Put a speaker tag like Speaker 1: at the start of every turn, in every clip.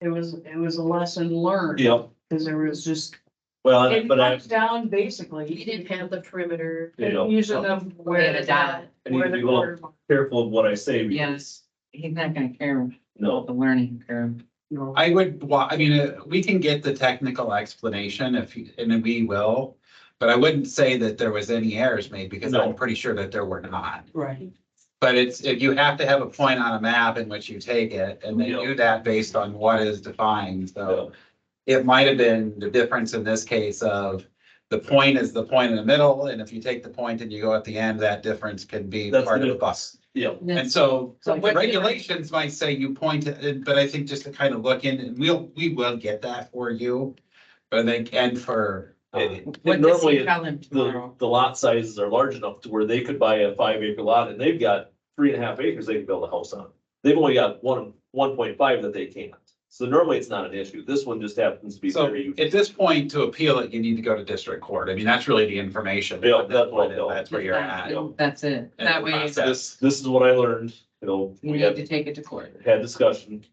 Speaker 1: It was, it was a lesson learned.
Speaker 2: Yep,
Speaker 1: Cause there was just,
Speaker 2: well,
Speaker 1: it
Speaker 2: but I,
Speaker 1: comes down basically.
Speaker 3: You didn't have the perimeter.
Speaker 2: you know,
Speaker 1: Using
Speaker 2: I'm
Speaker 1: them where
Speaker 4: Yeah,
Speaker 1: the
Speaker 4: the dot.
Speaker 2: I need to
Speaker 1: where the
Speaker 2: be a little-
Speaker 1: quarter mark.
Speaker 2: careful of what I say. because-
Speaker 4: Yes, he's not gonna care about
Speaker 2: No,
Speaker 4: the learning curve.
Speaker 5: I would, wa- I mean, uh, we can get the technical explanation if, you- and we will. But I wouldn't say that there was any errors made because
Speaker 2: No.
Speaker 5: I'm pretty sure that there were not.
Speaker 1: Right.
Speaker 5: But it's, if you have to have a point on a map in which you take it and they
Speaker 2: Yeah.
Speaker 5: do that based on what is defined, so.
Speaker 2: no,
Speaker 5: It might have been the difference in this case of the point is the point in the middle, and if you take the point and you go at the end, that difference can be
Speaker 2: That's
Speaker 5: part
Speaker 2: the
Speaker 5: of the bus.
Speaker 2: yeah,
Speaker 5: And so
Speaker 4: So
Speaker 5: the
Speaker 4: what-
Speaker 5: regulations might say you point, it, but I think just to kind of look in, and we'll, we will get that for you. But they can for, uh,
Speaker 2: It- it
Speaker 4: What does
Speaker 2: normally
Speaker 4: he
Speaker 2: it's
Speaker 4: tell him
Speaker 2: the,
Speaker 4: tomorrow?
Speaker 2: the lot sizes are large enough to where they could buy a five acre lot and they've got three and a half acres they can build a house on. They've only got one, one point five that they can't. So normally it's not an issue. This one just happens to be
Speaker 5: so
Speaker 2: very.
Speaker 5: at this point, to appeal it, you need to go to district court. I mean, that's really the information.
Speaker 2: Yeah,
Speaker 5: at this
Speaker 2: that's what
Speaker 5: point,
Speaker 2: I'll-
Speaker 5: That's where you're at.
Speaker 4: That's it.
Speaker 5: And
Speaker 4: That way
Speaker 5: process.
Speaker 2: This, this is what I learned, you know,
Speaker 4: you
Speaker 2: we
Speaker 4: need to
Speaker 2: had,
Speaker 4: take it to court.
Speaker 2: had discussion.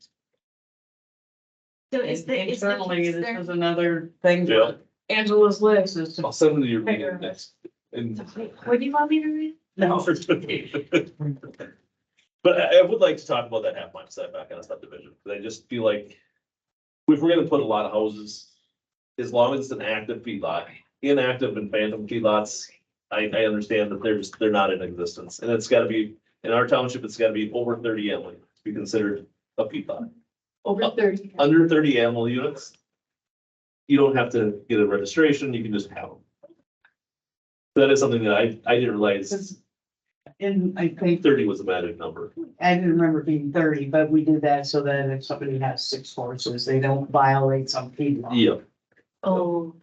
Speaker 3: So is the, is the
Speaker 1: Internally,
Speaker 3: piece
Speaker 1: this
Speaker 3: there?
Speaker 1: is another thing.
Speaker 2: Yeah.
Speaker 1: Angela's list is to.
Speaker 2: I'll send them to your meeting next. And
Speaker 3: What do you want me to read?
Speaker 2: But I, I would like to talk about that half mile setback on a subdivision, because I just feel like if we're gonna put a lot of houses, as long as it's an active feedlot, inactive and phantom feedlots, I, I understand that they're just, they're not in existence, and it's gotta be, in our township, it's gotta be over thirty animal units to be considered a feedlot. Uh,
Speaker 3: Over thirty.
Speaker 2: Under thirty animal units, you don't have to get a registration, you can just have them. That is something that I, I didn't realize
Speaker 1: Cause in, I think,
Speaker 2: thirty was a magic number.
Speaker 1: I didn't remember it being thirty, but we did that so that if somebody has six horses, they don't violate some feedlot.
Speaker 2: Yeah,
Speaker 3: Oh,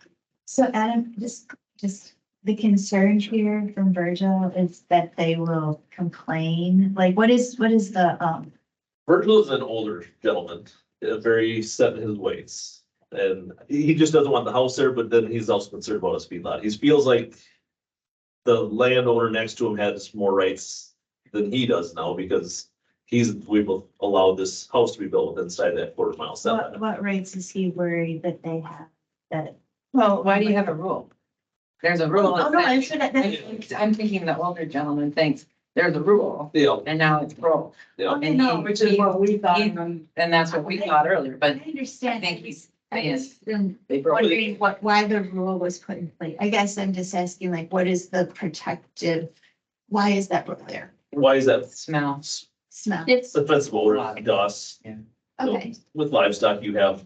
Speaker 6: So Adam, just, just the concern here from Virgil is that they will complain, like what is, what is the, um,
Speaker 2: Virgil is an older gentleman, uh, very set in his ways. And he just doesn't want the house there, but then he's also concerned about his feedlot. He feels like the landowner next to him has more rights than he does now because he's, we've allowed this house to be built inside that quarter mile
Speaker 6: what,
Speaker 2: setback.
Speaker 6: what rights is he worried that they have that?
Speaker 4: Well, why do you have a rule? There's a rule.
Speaker 6: Oh, no, I'm sure that, that's.
Speaker 4: I'm thinking the older gentleman thinks there's a rule
Speaker 2: Yeah,
Speaker 4: and now it's broke.
Speaker 2: yeah.
Speaker 6: Okay, no,
Speaker 1: Which is what we thought.
Speaker 4: He-
Speaker 1: and-
Speaker 4: And that's what we thought earlier,
Speaker 6: I
Speaker 4: but I
Speaker 6: understand.
Speaker 4: think
Speaker 6: I
Speaker 4: he's-
Speaker 6: was- I was um,
Speaker 4: they broke. it.
Speaker 6: wondering what, why the rule was put in place. I guess I'm just asking like, what is the protective? Why is that rule there?
Speaker 2: Why is that
Speaker 4: Smell.
Speaker 6: Smell,
Speaker 3: it's,
Speaker 2: offensive or dust? So
Speaker 6: okay.
Speaker 2: With livestock, you have,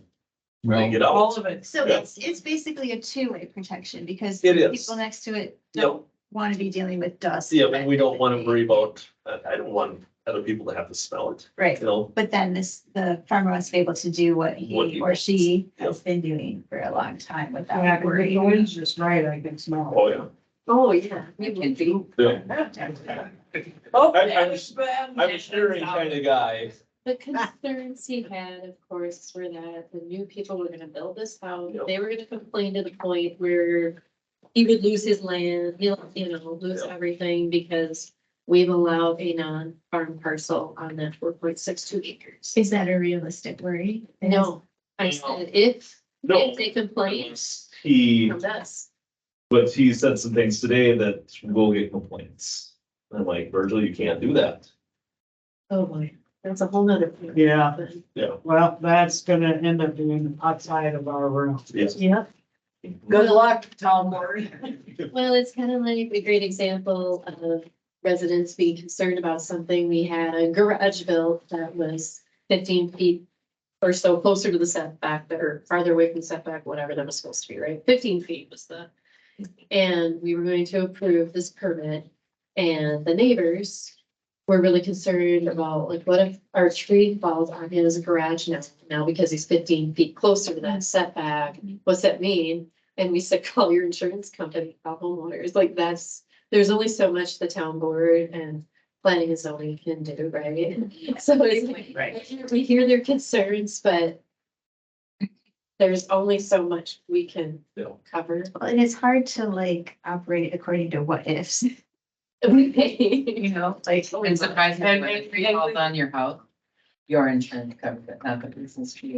Speaker 2: they
Speaker 5: Well,
Speaker 2: get out.
Speaker 1: All of it.
Speaker 6: So
Speaker 2: Yeah.
Speaker 6: it's, it's basically a two-way protection because
Speaker 2: It
Speaker 6: the
Speaker 2: is.
Speaker 6: people next to it
Speaker 2: Yep.
Speaker 6: don't want to be dealing with dust.
Speaker 2: Yeah, and we don't want to worry about, I I don't want other people to have to smell it,
Speaker 6: Right,
Speaker 2: you know?
Speaker 6: but then this, the farmer wants to be able to do what
Speaker 2: What he
Speaker 6: he or
Speaker 2: wants.
Speaker 6: she has been doing for a long time
Speaker 1: Yeah,
Speaker 6: without
Speaker 1: 'cause if
Speaker 6: worrying.
Speaker 1: the wind's just right, I can smell it.
Speaker 2: Oh, yeah.
Speaker 3: oh, yeah.
Speaker 4: It can be.
Speaker 2: Yeah.
Speaker 1: Oh,
Speaker 2: I- I
Speaker 1: that
Speaker 2: was-
Speaker 1: bad.
Speaker 2: I'm a sharing kind of guy.
Speaker 3: The concerns he had, of course, were that the new people were gonna build this house,
Speaker 2: Yeah.
Speaker 3: they were gonna complain to the point where he would lose his land, he'll, you know, lose
Speaker 2: Yeah.
Speaker 3: everything because we've allowed a non-farm parcel on that four point six two acres.
Speaker 6: Is that a realistic worry?
Speaker 3: No, I said, if,
Speaker 2: No, Mm-hmm.
Speaker 3: if they complain
Speaker 2: he,
Speaker 3: from us,
Speaker 2: but he said some things today that will get complaints. And I'm like, Virgil, you can't do that.
Speaker 3: oh boy, that's a whole nother. thing.
Speaker 1: Yeah,
Speaker 2: Yeah.
Speaker 1: well, that's gonna end up being outside of our realm.
Speaker 2: Yes.
Speaker 3: Yeah.
Speaker 1: Good luck, Tom Murray.
Speaker 3: Well, it's kind of like a great example of residents being concerned about something. We had a garage built that was fifteen feet or so closer to the setback, or farther away from setback, whatever that was supposed to be, right? Fifteen feet was the. And we were going to approve this permit and the neighbors were really concerned about, like, what if our tree falls on his garage now? Now, because he's fifteen feet closer to that setback, what's that mean? And we said, call your insurance company, call homeowners, like that's, there's only so much the town board and planning and zoning can do, right? So it's like,
Speaker 1: Right.
Speaker 3: I hear- we hear their concerns, but there's only so much we can
Speaker 2: Yeah.
Speaker 3: cover.
Speaker 6: Well, and it's hard to like operate according to what ifs,
Speaker 3: We pay.
Speaker 6: you know, like.
Speaker 4: And surprisingly, when
Speaker 1: And-
Speaker 4: the tree
Speaker 1: and-
Speaker 4: falls on your house, your insurance covers it, not the business tree.